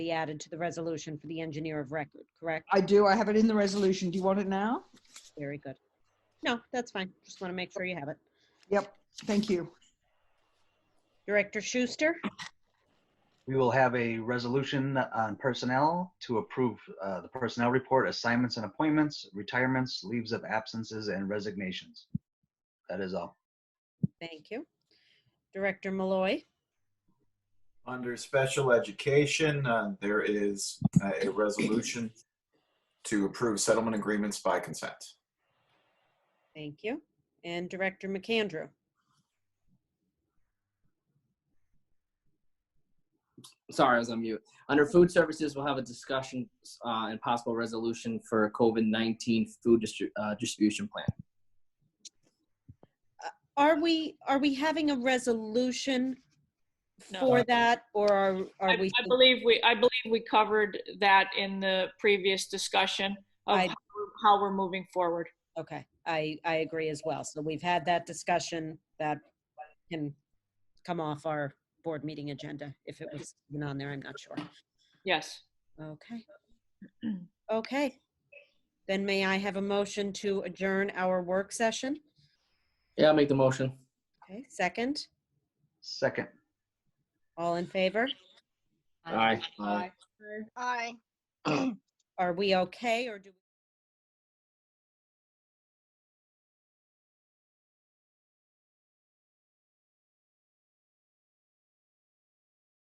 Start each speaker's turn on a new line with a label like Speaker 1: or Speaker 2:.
Speaker 1: be added to the resolution for the engineer of record, correct?
Speaker 2: I do, I have it in the resolution. Do you want it now?
Speaker 1: Very good. No, that's fine. Just want to make sure you have it.
Speaker 2: Yep, thank you.
Speaker 1: Director Schuster,
Speaker 3: We will have a resolution on personnel to approve uh, the personnel report, assignments and appointments, retirements, leaves of absences, and resignations. That is all.
Speaker 1: thank you. Director Malloy,
Speaker 4: Under special education, uh, there is uh, a resolution to approve settlement agreements by consent.
Speaker 1: thank you. And Director McAndrew,
Speaker 5: sorry, I was on mute. Under food services, we'll have a discussion uh, and possible resolution for a COVID nineteen food distri- uh, distribution plan.
Speaker 1: are we, are we having a resolution
Speaker 6: No.
Speaker 1: for that or are
Speaker 6: I
Speaker 1: are we?
Speaker 6: I believe we, I believe we covered that in the previous discussion of
Speaker 1: I-
Speaker 6: how we're- how we're moving forward.
Speaker 1: Okay, I, I agree as well. So we've had that discussion that can come off our board meeting agenda. If it was even on there, I'm not sure.
Speaker 6: Yes.
Speaker 1: Okay. Okay. Then may I have a motion to adjourn our work session?
Speaker 5: Yeah, I'll make the motion.
Speaker 1: Okay, second.
Speaker 3: Second,
Speaker 1: All in favor?
Speaker 5: Aye.
Speaker 7: Aye.
Speaker 1: Are we okay or do? we?